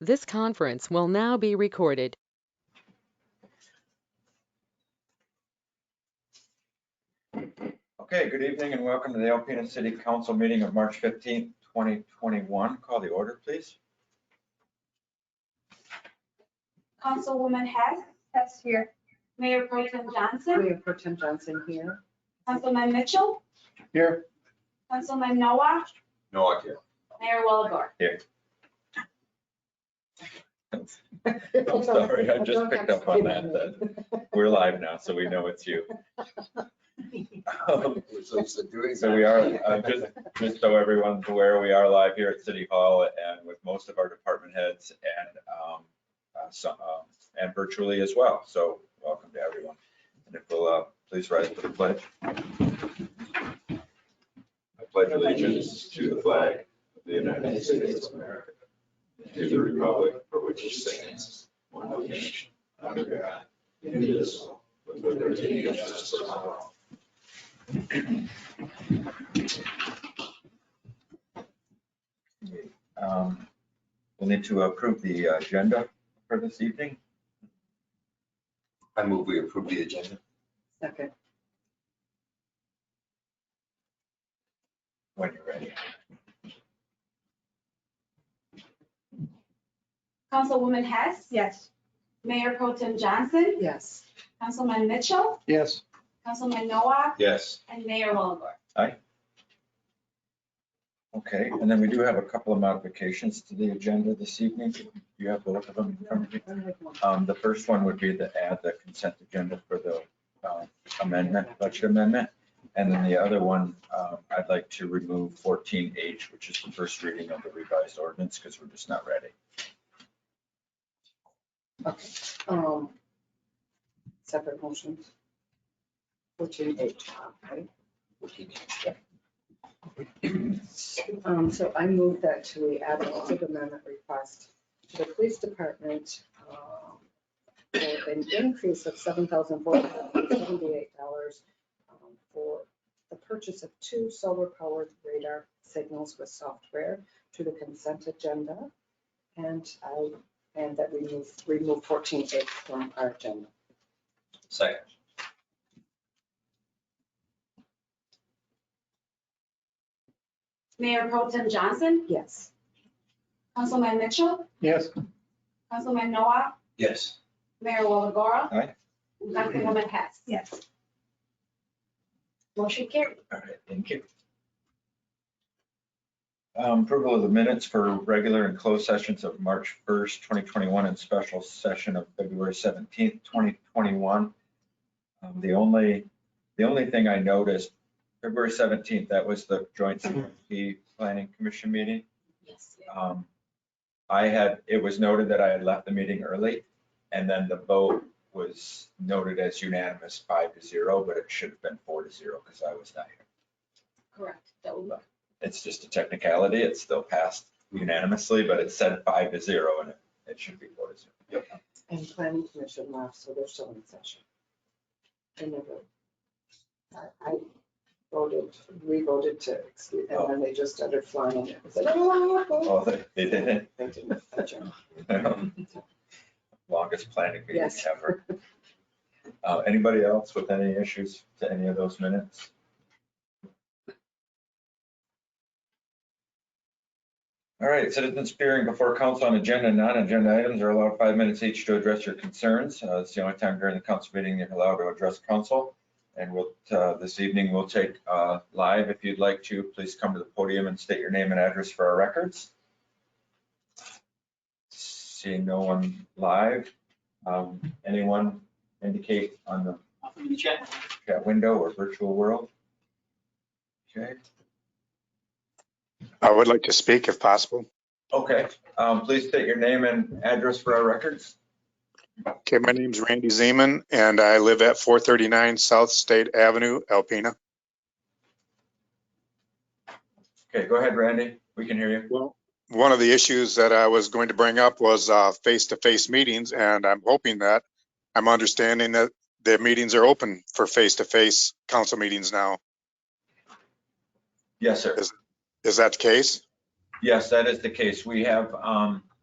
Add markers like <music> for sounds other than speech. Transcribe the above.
This conference will now be recorded. Okay, good evening and welcome to the Alpena City Council meeting of March 15th, 2021. Call the order, please. Councilwoman Hess, that's here. Mayor Pro Tem Johnson, Mayor Pro Tem Johnson here. Councilman Mitchell, Here. Councilman Noah, No, I can't. Mayor Walagore. <laughs> I'm sorry, I just picked up on that, that we're live now, so we know it's <laughs> you. Um, So we are, uh, just, just so everyone's aware, we are live here at City Hall and with most of our department heads and, um, uh, some, um, and virtually as well. So welcome to everyone. And if we'll, uh, please rise to the pledge. I pledge allegiance to the flag of the United States of America, and to the republic for which it stands, one nation, under God, indivisible, with liberty and justice for all. Um, We'll need to approve the agenda for this evening. I move we approve the agenda. Second. When you're ready. Councilwoman Hess, Yes. Mayor Pro Tem Johnson, Yes. Councilman Mitchell, Yes, Councilman Noah, Yes. and Mayor Walagore. Okay, and then we do have a couple of modifications to the agenda this evening. You have both of them in front of you. Um, The first one would be to add the consent agenda for the uh, amendment, budget amendment. And then the other one, um, I'd like to remove 14H, which is the first reading of the revised ordinance because we're just not ready. Um, Separate motions. Fourteen H, right? Um, So I move that to the add an budget amendment request to the police department um, for an increase of seven thousand four hundred seventy-eight dollars um, for the purchase of two solar-powered radar signals with software to the consent agenda. And I and that we move, remove fourteen H from our agenda. Second. Yes. Mayor Pro Tem Johnson, Councilman Mitchell, yes, Councilman Noah, Yes. Mayor Walagore. Aye. and Councilwoman Hess. Yes. Motion carried. All right, thank you. Um, Approval of the minutes for regular and closed sessions of March 1st, 2021, and special session of February 17th, 2021. Um, The only, the only thing I noticed, February 17th, that was the joint CMP Planning Commission meeting. Yes. Um, I had, it was noted that I had left the meeting early, and then the vote was noted as unanimous five to zero, but it should have been four to zero because I was not here. Correct. That will- It's just a technicality. It still passed unanimously, but it said five to zero and it, it should be four to zero. And planning commission left, so they're still in session. I never. I- I voted, we voted to excuse, and then they just started flying. It was like, "Oh, oh, Oh, they, they did <laughs> oh." They didn't adjourn. it. Longest planning meeting Yes. ever. Uh, anybody else with any issues to any of those minutes? All right, citizens appearing before council on agenda and non-agenda items are allowed five minutes each to address your concerns. Uh, It's the only time during the council meeting you're allowed to address council. And we'll, uh, this evening, we'll take uh, live. If you'd like to, please come to the podium and state your name and address for our records. Seeing no one live, um, anyone indicate on the Nothing in the chat. chat window or virtual world? Okay, I would like to speak if possible. okay, um, please state your name and address for our records. Okay, my name's Randy Zeman and I live at 439 South State Avenue, Alpena. Okay, go ahead, Randy. We can hear you. Well, one of the issues that I was going to bring up was uh, face-to-face meetings, and I'm hoping that, I'm understanding that the meetings are open for face-to-face council meetings now. Yes, sir. Is that the case? Yes, that is the case. We have, um,